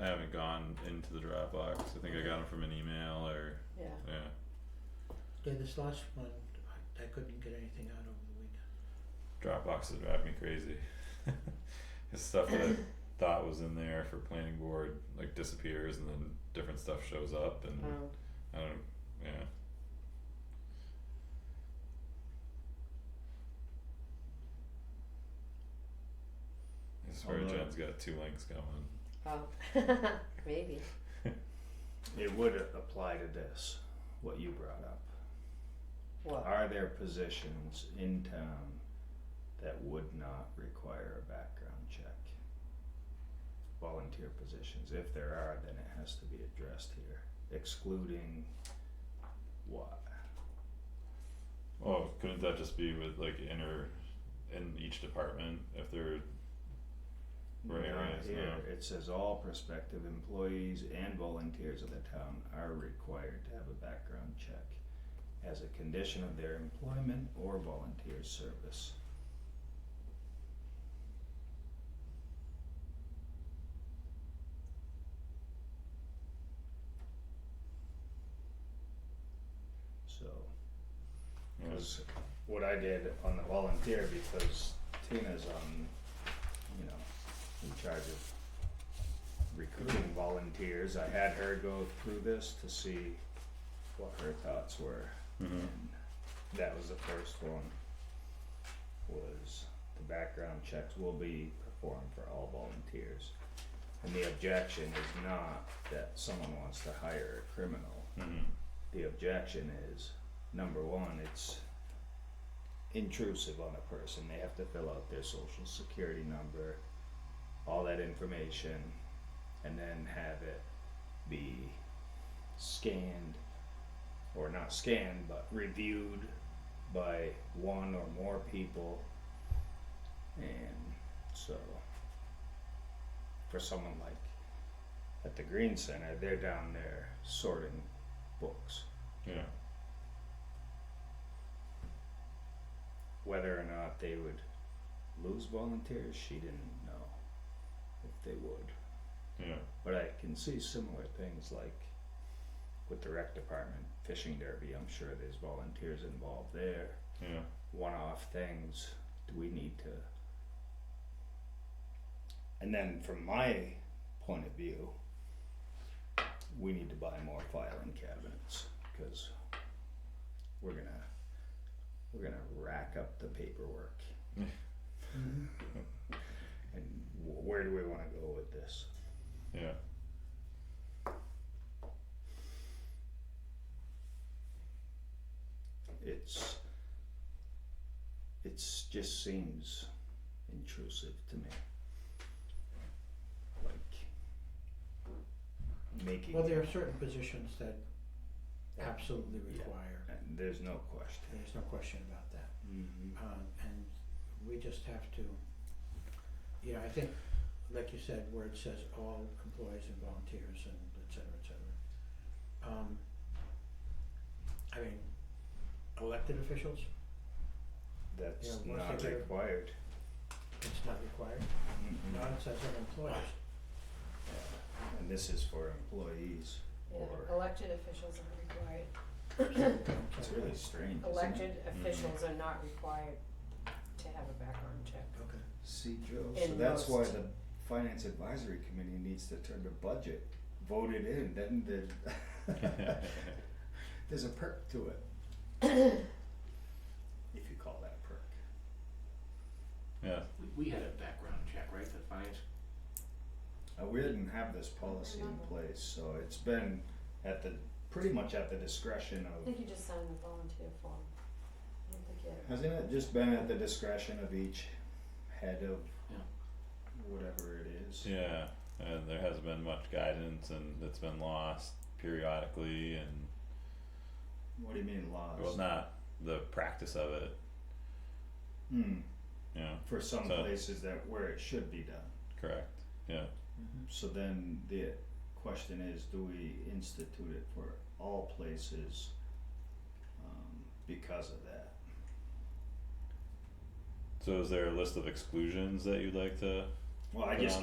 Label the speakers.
Speaker 1: I haven't gone into the Dropbox. I think I got them from an email or
Speaker 2: yeah,
Speaker 1: yeah.
Speaker 3: Yeah, this last one, I, I couldn't get anything out over the
Speaker 1: Dropboxes
Speaker 3: weekend.
Speaker 1: drive me crazy. It's stuff that I thought was in there for planning board like disappears and then different stuff shows up and
Speaker 2: um,
Speaker 1: I don't yeah. I swear
Speaker 4: Although-
Speaker 1: Jen's got two links going.
Speaker 2: oh, maybe,
Speaker 4: It would a- apply to this, what you brought up.
Speaker 2: what,
Speaker 4: Are there positions in town that would not require a background check? Volunteer positions, if there are, then it has to be addressed here, excluding what?
Speaker 1: Oh, couldn't that just be with like inner in each department if they're Right,
Speaker 4: Not
Speaker 1: right,
Speaker 4: here,
Speaker 1: yeah.
Speaker 4: it says all prospective employees and volunteers of the town are required to have a background check as a condition of their employment or volunteer service. So.
Speaker 1: you know,
Speaker 4: Cause what I did on the volunteer, because Tina's on, you know, in charge of recruiting volunteers, I had her go through this to see what her thoughts were.
Speaker 1: mhm.
Speaker 4: And that was the first one, was the background checks will be performed for all volunteers. And the objection is not that someone wants to hire a criminal.
Speaker 1: Mhm.
Speaker 4: The objection is, number one, it's intrusive on a person. They have to fill out their social security number, all that information, and then have it be scanned, or not scanned, but reviewed by one or more people. And so, for someone like at the Green Center, they're down there sorting books.
Speaker 1: Yeah.
Speaker 4: Whether or not they would lose volunteers, she didn't know if they would.
Speaker 1: Yeah.
Speaker 4: But I can see similar things like with the rec department, fishing derby, I'm sure there's volunteers involved there.
Speaker 1: Yeah.
Speaker 4: One off things, do we need to? And then from my point of view, we need to buy more filing cabinets because we're gonna we're gonna rack up the paperwork. And wh- where do we want to go with this?
Speaker 1: Yeah.
Speaker 4: It's it's just seems intrusive to me. Like making
Speaker 3: Well, there are certain positions that
Speaker 4: Yeah.
Speaker 3: absolutely
Speaker 4: Yeah.
Speaker 3: require,
Speaker 4: and there's no question.
Speaker 3: there's no question about that.
Speaker 4: Mm-hmm.
Speaker 3: Um, and we just have to, yeah, I think, like you said, where it says all employees and volunteers and et cetera, et cetera. Um, I mean, elected officials, Yeah,
Speaker 4: That's
Speaker 3: once
Speaker 4: not
Speaker 3: they get-
Speaker 4: required.
Speaker 3: it's not required,
Speaker 4: Mhm.
Speaker 3: not it says on employees.
Speaker 4: Yeah. And this is for employees
Speaker 2: yeah,
Speaker 4: or
Speaker 2: elected officials are required,
Speaker 4: it's really strange. isn't it?
Speaker 2: elected officials are not required to have a background check.
Speaker 3: Okay.
Speaker 4: See, Joe, so
Speaker 2: In
Speaker 4: that's why
Speaker 2: most-
Speaker 4: the Finance Advisory Committee needs to turn the budget voted in, then the, there's a perk to it. If you call that a perk.
Speaker 1: Yeah.
Speaker 5: We, we had a background check, right, the finance?
Speaker 4: Uh, we didn't have this policy in place, so it's been at the, pretty much at the discretion
Speaker 2: I
Speaker 4: of,
Speaker 2: think you just sign the volunteer form, I don't think you have-
Speaker 4: hasn't it just been at the discretion of each head of
Speaker 5: Yeah.
Speaker 4: whatever it is?
Speaker 1: Yeah. And there hasn't been much guidance and it's been lost periodically and
Speaker 4: What do you mean
Speaker 1: well
Speaker 4: laws?
Speaker 1: not the practice of it,
Speaker 4: Hmm,
Speaker 1: you know,
Speaker 4: for some
Speaker 1: So-
Speaker 4: places that, where it should be done.
Speaker 1: correct. Yeah.
Speaker 3: Mm-hmm.
Speaker 4: So then the question is, do we institute it for all places um, because of that?
Speaker 1: So is there a list of exclusions that you'd like to
Speaker 4: Well, I just